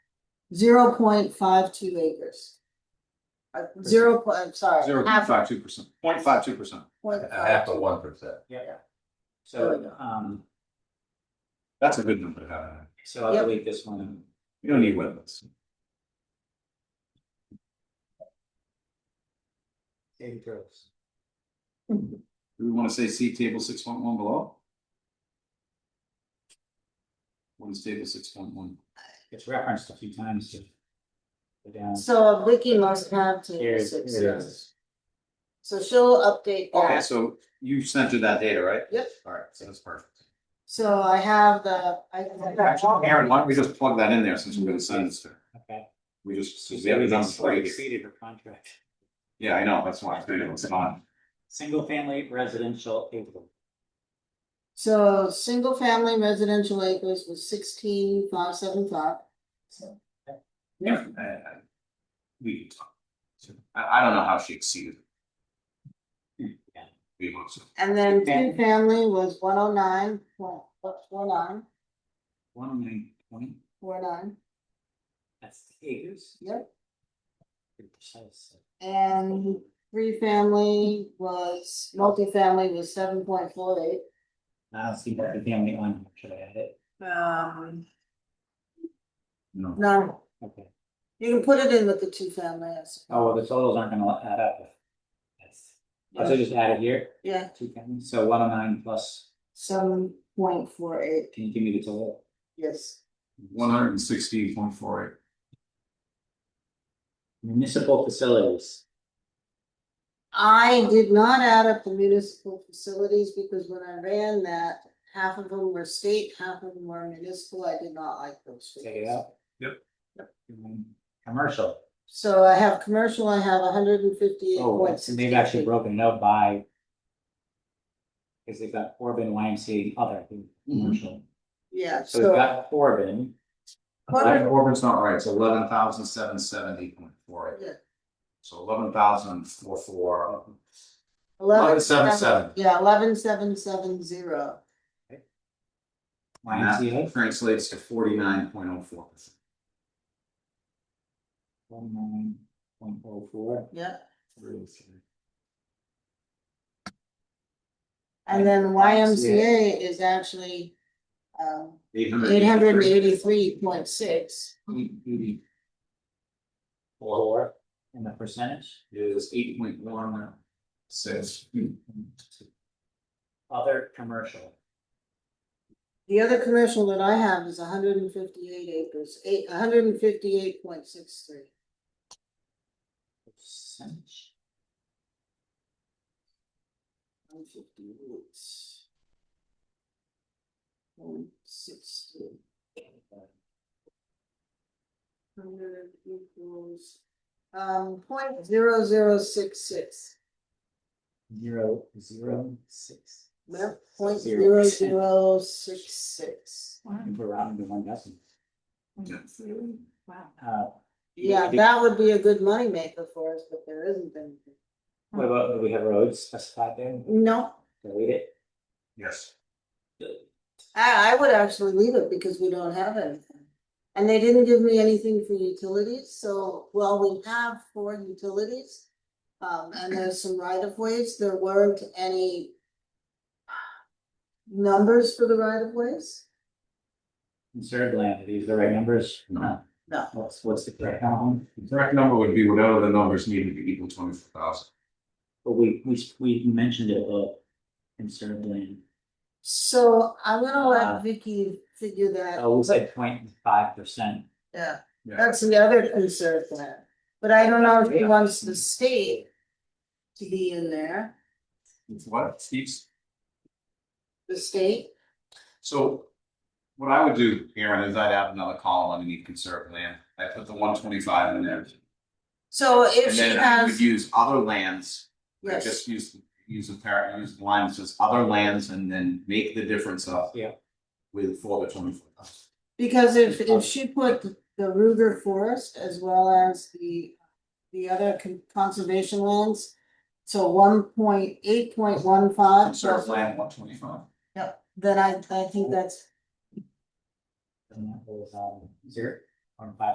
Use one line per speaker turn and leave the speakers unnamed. zero point five two acres. Uh, zero point, I'm sorry,
Zero point five two percent, point five two percent.
point
A half
five
of
two.
one percent.
There we
So,
go.
um,
That's a good number. to have.
so I
Yep.
believe this one,
You don't need wetlands. Do we want to say see table six point one below? What is table six point one?
it's referenced a few times. to- to Down,
So Vicky must have
Here
to
it-
six,
here it is.
yes. So she'll update
Okay,
that,
so you sent her that data, right?
Yep.
All right, so that's perfect.
so I have the, I.
Aaron, why don't we just plug that in there since we're gonna send this to her?
okay.
We just,
She
we have
said
a
we
number for
slightly
you.
exceeded her contract.
Yeah, I know, that's why I figured it's not.
Single family residential acre.
So, single family residential acres was sixteen five seven five.
Yeah. I- I- We can talk. I, I don't know how she exceeded. it.
Yeah.
We must.
And then two
Okay.
family was one oh nine, one, four nine,
One oh nine point,
four oh nine,
that's acres.
yep.
Pretty precise.
And three family was, multifamily was seven point four eight.
I don't see that the family on, here. should I add it?
Um,
No.
no,
Okay,
you can put it in with the two family, I
oh, well,
suppose.
the totals aren't gonna add up. That's, I'll just add it here,
Yeah,
two families, so one oh nine plus,
seven point four eight,
can you give me the total?
yes.
One hundred and sixteen point four eight.
Municipal facilities,
I did not add up the municipal facilities because when I ran that, half of them were state, half of them were municipal. I did not like those.
take it
figures.
out.
Yep.
Mm, Commercial,
So I have commercial, I have hundred and fifty-eight
oh,
point
that's- and they've
sixty.
actually broken it out by. Cause they've got Corbin, YMCA, other, commercial,
Yeah,
so they've
Mm-hmm. so.
got Corbin,
Corbin-
Orban's not right, it's eleven thousand seven seventy point four eight,
yeah,
so eleven thousand four four.
Eleven
11,770.
Yeah, eleven seven seven zero.
YMCA.
Translates to forty nine point oh four percent.
One nine point oh four.
Yeah.
Three
And then
YMCA.
YMCA is actually um
Eight hundred.
eight hundred and eighty-three point six.
Four. And the percentage,
Is eight point one hmm, six.
other commercial,
The other commercial that I have is hundred and fifty-eight acres, eight, hundred and fifty-eight point six three.
percentage,
One fifty-eight. One sixty. Hundred equals, um, point zero zero six six,
zero, zero, six.
well, point
Zero.
zero zero six six.
If we're rounding to one dozen,
Wow.
uh,
Yeah, that would be a good moneymaker for us, but there isn't anything.
what about, do we have roads specified there,
No,
delete it?
Yes.
I, I would actually leave it because we don't have anything. And they didn't give me anything for utilities, so, well, we have four utilities. Um, and there's some right of ways, there weren't any. Numbers for the right of ways?
Conserved land, are these the right numbers?
No.
No.
What's, what's the correct one?
The correct number would be whatever the numbers needed to equal twenty four thousand.
But we, we, we mentioned it, uh, conserved land,
So I'm gonna
Uh.
let Vicky figure that,
oh, we said point five percent,
yeah,
Yeah.
that's the other concern for that. But I don't know if he wants the state. To be in there,
It's what, Steve's?
the state,
So what I would do, Aaron, is I'd add another column underneath conserved land. I put the one twenty five in there.
so if
And
she
then I
has.
would use other lands. I
Yes.
Just use, use a par, use the line that says other lands and then make the difference up.
Yeah.
With for the twenty four thousand.
Because if, if she put the Ruger Forest as well as the, the other con- conservation lands. So one point eight point one five,
Conserved land, one twenty five.
then I, I think that's
and that was, um, zero, or five